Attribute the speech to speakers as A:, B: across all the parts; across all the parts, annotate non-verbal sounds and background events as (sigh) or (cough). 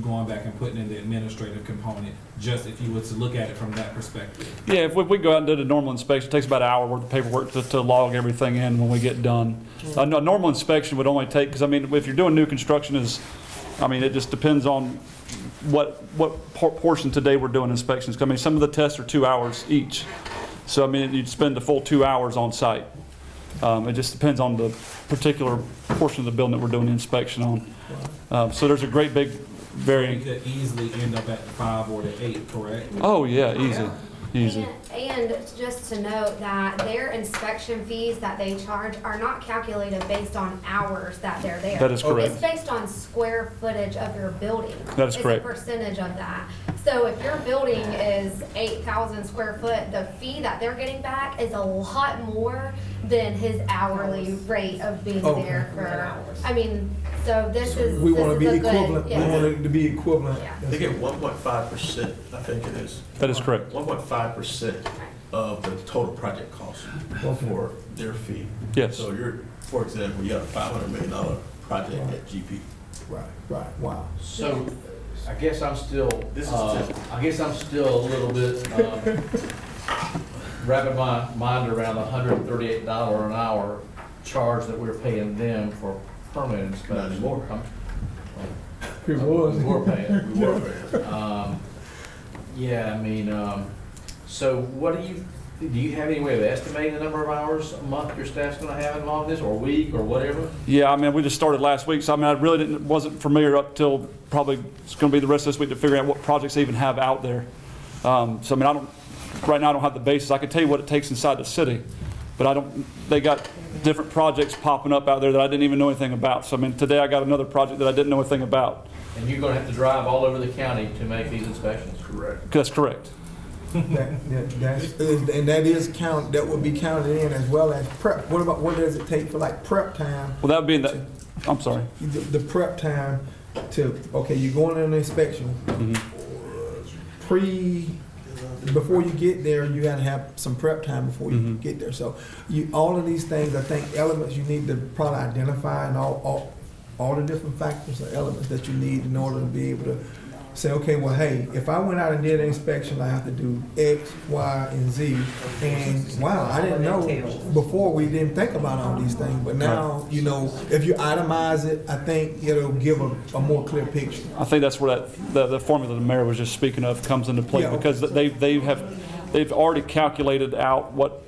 A: going back and putting in the administrative component, just if you were to look at it from that perspective.
B: Yeah, if we, we go out and do the normal inspection, it takes about an hour worth of paperwork to, to log everything in when we get done. A, no- normal inspection would only take, because I mean, if you're doing new construction is, I mean, it just depends on what, what por- portion today we're doing inspections. 'Cause I mean, some of the tests are two hours each. So I mean, you'd spend the full two hours on site. Um, it just depends on the particular portion of the building that we're doing the inspection on. Uh, so there's a great big
A: You
B: varying,
A: could easily end up at the five or the eight, correct?
B: oh yeah, easy, easy.
C: And and just to note that their inspection fees that they charge are not calculated based on hours that they're there.
B: That is correct.
C: It's based on square footage of your building.
B: That is correct.
C: It's a percentage of that. So if your building is eight thousand square foot, the fee that they're getting back is a lot more than his hourly rate of being
D: Okay.
C: there for, I mean, so this is,
D: We
C: this
D: want to be
C: is a good-
D: equivalent, we
C: yeah.
D: want it to be equivalent.
C: Yeah.
E: They get one point five percent, I think it is.
B: That is correct.
E: One point five percent of the total project cost for their fee.
B: Yes.
E: So you're, for example, you have a five hundred million dollar project at GP.
D: Right, right, wow.
F: So, I guess I'm still,
E: This is
F: uh, I guess I'm still a little bit, um, wrapping my mind around the hundred and thirty-eight dollar an hour charge that we're paying them for permanent inspection.
E: Not anymore.
F: I'm-
D: It
F: We
D: was.
F: were
E: (laughs)
F: paying.
E: We were very-
F: Um, Yeah, I mean, um, so what do you, do you have any way of estimating the number of hours a month your staff's gonna have involved in this, or week, or whatever?
B: Yeah, I mean, we just started last week, so I mean, I really didn't, wasn't familiar up till probably, it's gonna be the rest of this week to figure out what projects they even have out there. Um, so I mean, I don't, right now I don't have the basis, I can tell you what it takes inside the city, but I don't, they got different projects popping up out there that I didn't even know anything about, so I mean, today I got another project that I didn't know anything about.
F: And you're gonna have to drive all over the county to make these inspections?
E: Correct.
B: That's correct.
D: That- that- that's- And that is count, that would be counted in as well as prep. What about, what does it take for like prep time?
B: Well, that would be in the, I'm sorry.
D: The the prep time to, okay, you're going on an inspection. Mm-hmm. Pre, before you get there, you gotta have some prep time before you
B: Mhm.
D: get there. So you, all of these things, I think elements you need to probably identify and all, all, all the different factors or elements that you need in order to be able to say, okay, well, hey, if I went out and did an inspection, I have to do X, Y, and Z. And wow, I didn't know, before we didn't think about all these things, but now, you know, if you itemize it, I think it'll give a, a more clear picture.
B: I think that's where that, the, the formula the mayor was just speaking of comes into play,
D: Yeah.
B: because they, they have, they've already calculated out what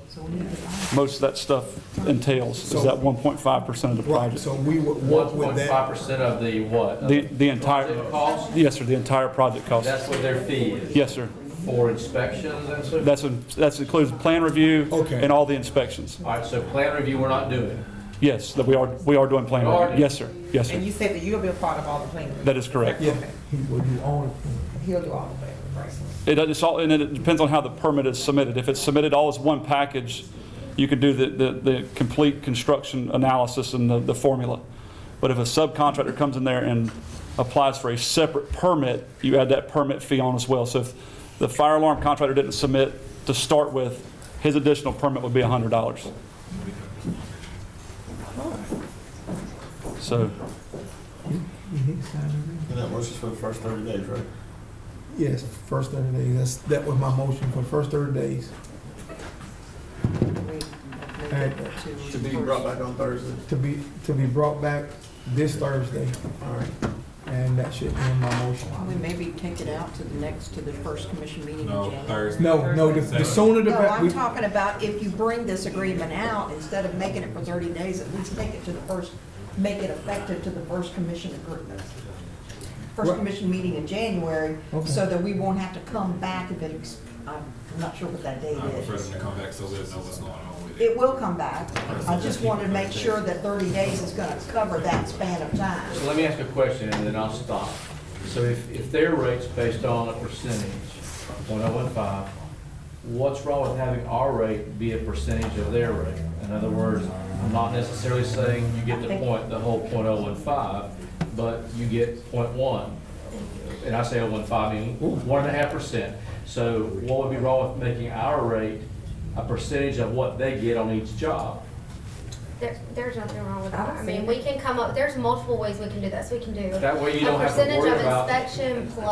B: most of that stuff entails, is that one point five percent of the
D: Right,
B: project.
D: so we would work
F: One
D: with
F: point
D: that.
F: five percent of the what? Of
B: The, the entire,
F: project Cost,
B: yes, sir, the entire project cost.
F: that's what their fee is,
B: Yes, sir.
F: for inspections and so?
B: That's, in- that's includes plan review
D: Okay.
B: and all the inspections.
F: All right, so plan review, we're not doing.
B: Yes, that we are, we are doing plan
F: You are
B: review. Yes, sir. Yes,
G: And
B: sir.
G: you said that you'll be a part of all the planning.
B: That is correct.
D: Yeah, he would do all of it.
G: He'll do all the planning, right?
B: It, it's all, and it depends on how the permit is submitted. If it's submitted all as one package, you could do the, the, the complete construction analysis and the, the formula. But if a subcontractor comes in there and applies for a separate permit, you add that permit fee on as well. So if the fire alarm contractor didn't submit to start with, his additional permit would be hundred dollars. So,
E: And that works for the first thirty days, right?
D: Yes, first thirty days, that's, that was my motion for the first thirty days. And
E: To be brought back on Thursday.
D: to be, to be brought back this Thursday,
E: All right.
D: and that should end my motion.
H: Then maybe take it out to the next, to the first commission meeting in
A: No,
H: January.
A: Thursday.
D: No, no, the the sooner the
H: No,
D: better.
H: I'm talking about if you bring this agreement out, instead of making it for 30 days, at least take it to the first, make it effective to the first commission agreement. First
D: Right.
H: commission meeting in January, so
D: Okay.
H: that we won't have to come back if it, ex- I'm not sure what that date
A: I prefer
H: is.
A: them to come back so we'll know what's going on with it.
H: It will come back. I just wanted to make sure that 30 days is going to cover that span of time.
F: So let me ask a question and then I'll stop. So if, if their rate's based on a percentage, point oh one five, what's wrong with having our rate be a percentage of their rate? In other words, I'm not necessarily saying you get the point, the whole point oh one five, but you get point one. And I say oh one five, I mean, one and a half percent. So what would be wrong with making our rate a percentage of what they get on each job?
C: There, there's nothing wrong with
H: I
C: that.
H: don't
C: I
H: see
C: mean,
H: it.
C: we can come up, there's multiple ways we can do this. We can do
F: That way you
C: a
F: don't have to
C: percentage
F: worry
C: of
F: about.
C: inspection plus